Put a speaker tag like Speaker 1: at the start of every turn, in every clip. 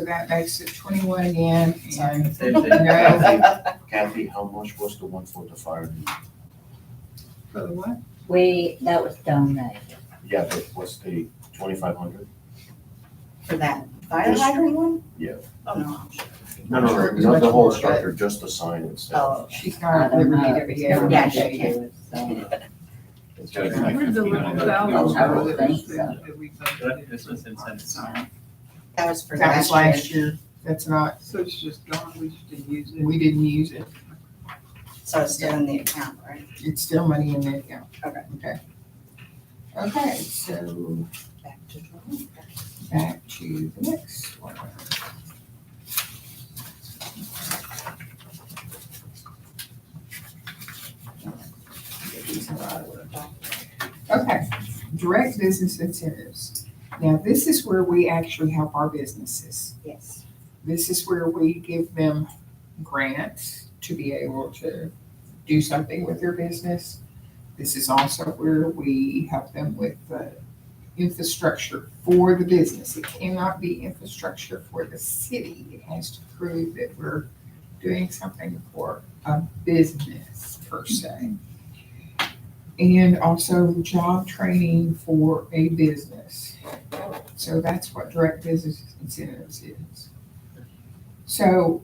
Speaker 1: So that makes it twenty-one again, and
Speaker 2: Kathy, how much was the one for the fire?
Speaker 1: for the what?
Speaker 3: We, that was donated.
Speaker 2: Yeah, that was the twenty-five hundred?
Speaker 4: for that fire
Speaker 2: Yes.
Speaker 4: hydrant one?
Speaker 2: Yeah.
Speaker 4: Oh, no, I'm sure.
Speaker 2: No, no, no, not the whole structure, just the sign itself.
Speaker 4: Oh, okay.
Speaker 1: She's not at liberty
Speaker 3: Uh,
Speaker 1: to be able to
Speaker 4: Uh, Yeah, she
Speaker 1: say it.
Speaker 2: It's
Speaker 5: Gotta
Speaker 2: like
Speaker 5: connect.
Speaker 1: Where's the little thousand dollars that that we budgeted?
Speaker 5: This was incentives.
Speaker 1: Sorry.
Speaker 4: That was for
Speaker 1: That was
Speaker 4: last
Speaker 1: last
Speaker 4: year.
Speaker 1: year, that's not,
Speaker 6: So it's just gone, we just didn't use it.
Speaker 1: we didn't use it,
Speaker 4: So it's still in the account, right?
Speaker 1: it's still money in the account.
Speaker 4: Okay.
Speaker 1: Okay. Okay, so
Speaker 4: Back to drawing.
Speaker 1: back to the next one. These are out of order. Okay, direct business incentives. Now, this is where we actually help our businesses.
Speaker 4: Yes.
Speaker 1: This is where we give them grants to be able to do something with their business. This is also where we help them with the infrastructure for the business. It cannot be infrastructure for the city. It has to prove that we're doing something for a business per se. And also job training for a business. So that's what direct business incentives is. So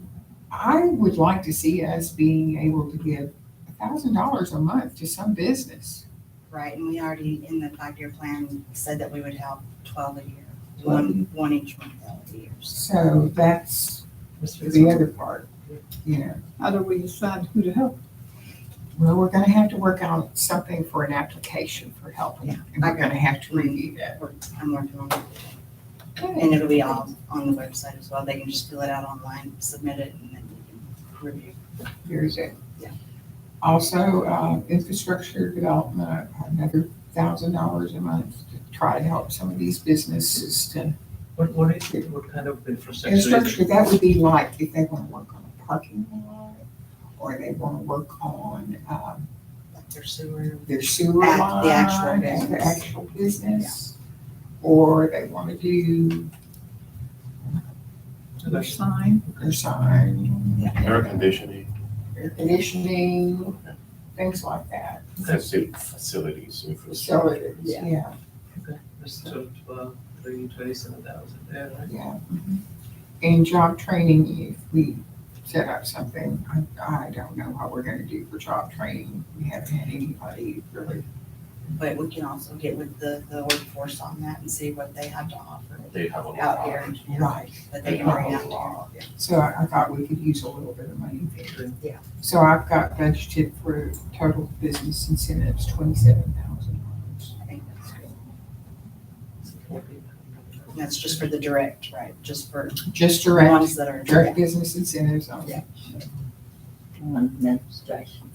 Speaker 1: I would like to see us being able to give a thousand dollars a month to some business.
Speaker 4: Right, and we already, in the five-year plan, said that we would help twelve a year, one, one each month out of the years.
Speaker 1: So that's the other part, you know.
Speaker 6: How do we decide who to help?
Speaker 1: Well, we're gonna have to work on something for an application for helping, and we're gonna have to review that.
Speaker 4: We're- I'm working on it. And it'll be all on the website as well. They can just fill it out online, submit it, and then we can review.
Speaker 1: Here's it.
Speaker 4: Yeah.
Speaker 1: Also, uh, infrastructure development, another thousand dollars a month to try to help some of these businesses to
Speaker 5: What, what is it, what kind of infrastructure is it?
Speaker 1: Infrastructure, that would be like if they wanna work on a parking lot, or they wanna work on, um,
Speaker 4: Like their sewer.
Speaker 1: their sewer
Speaker 4: Act-
Speaker 1: line.
Speaker 4: the actual
Speaker 1: and The
Speaker 4: business.
Speaker 1: actual business, or they wanna do
Speaker 6: Their sign?
Speaker 1: their sign,
Speaker 2: Air conditioning,
Speaker 1: air conditioning, things like that.
Speaker 2: faci- facilities,
Speaker 1: So,
Speaker 2: infrastructure.
Speaker 1: it- yeah,
Speaker 5: Okay, That's twelve, twelve, three, twenty-seven thousand there, right?
Speaker 1: yeah. And job training, if we set up something, I, I don't know what we're gonna do for job training, we haven't had anybody really
Speaker 4: But we can also get with the, the workforce on that and see what they have to offer
Speaker 2: They have a lot.
Speaker 4: out here. you know,
Speaker 1: write.
Speaker 4: That they can bring out here.
Speaker 1: So I, I thought we could use a little bit of money there.
Speaker 4: Yeah.
Speaker 1: So I've got budgeted for total business incentives, twenty-seven thousand dollars.
Speaker 4: I think that's good. And that's just for the direct, right? Just for
Speaker 1: Just
Speaker 4: the
Speaker 1: direct,
Speaker 4: ones that are.
Speaker 1: direct business incentives um, only.
Speaker 4: Yeah.
Speaker 3: um, Administration,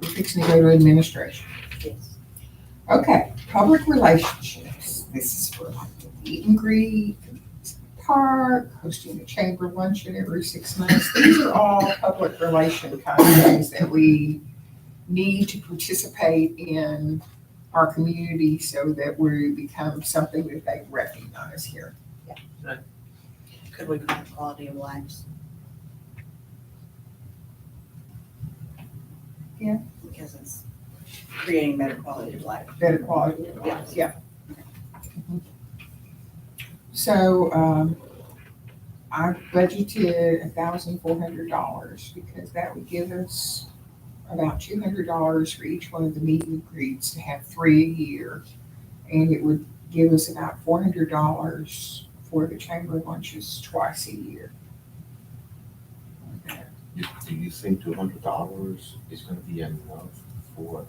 Speaker 1: We're fixing to go to administration.
Speaker 3: yes.
Speaker 1: Okay, public relationships. This is for like the meet and greet, park, hosting a chamber luncheon every six months. These are all public relation kind of things that we need to participate in our community so that we become something that they recognize here.
Speaker 4: Could we call it quality of lives?
Speaker 1: Yeah.
Speaker 4: Because it's creating better quality of life.
Speaker 1: Better quality of life, yeah. So, um, I budgeted a thousand four hundred dollars because that would give us about two hundred dollars for each one of the meet and greets to have three a year. And it would give us about four hundred dollars for the chamber lunches twice a year.
Speaker 2: You- Do you think two hundred dollars is gonna be enough for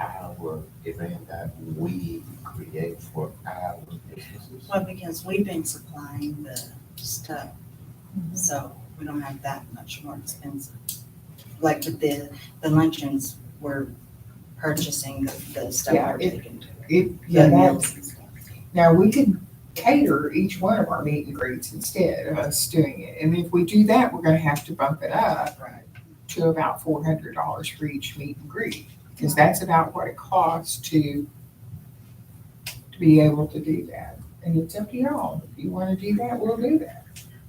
Speaker 2: our event that we create for our businesses?
Speaker 4: Well, because we've been supplying the stuff,
Speaker 1: Mm-hmm.
Speaker 4: so we don't have that much more expensive. Like with the, the luncheons, we're purchasing the, the stuff
Speaker 1: Yeah,
Speaker 4: we're
Speaker 1: it-
Speaker 4: taking to. it.
Speaker 1: It, yeah,
Speaker 4: The
Speaker 1: that,
Speaker 4: meals and stuff.
Speaker 1: Now, we could cater each one of our meet and greets instead of us doing it. And if we do that, we're gonna have to bump it up
Speaker 4: Right.
Speaker 1: to about four hundred dollars for each meet and greet. Because that's about what it costs to, to be able to do that. And it's up to y'all. If you wanna do that, we'll do that.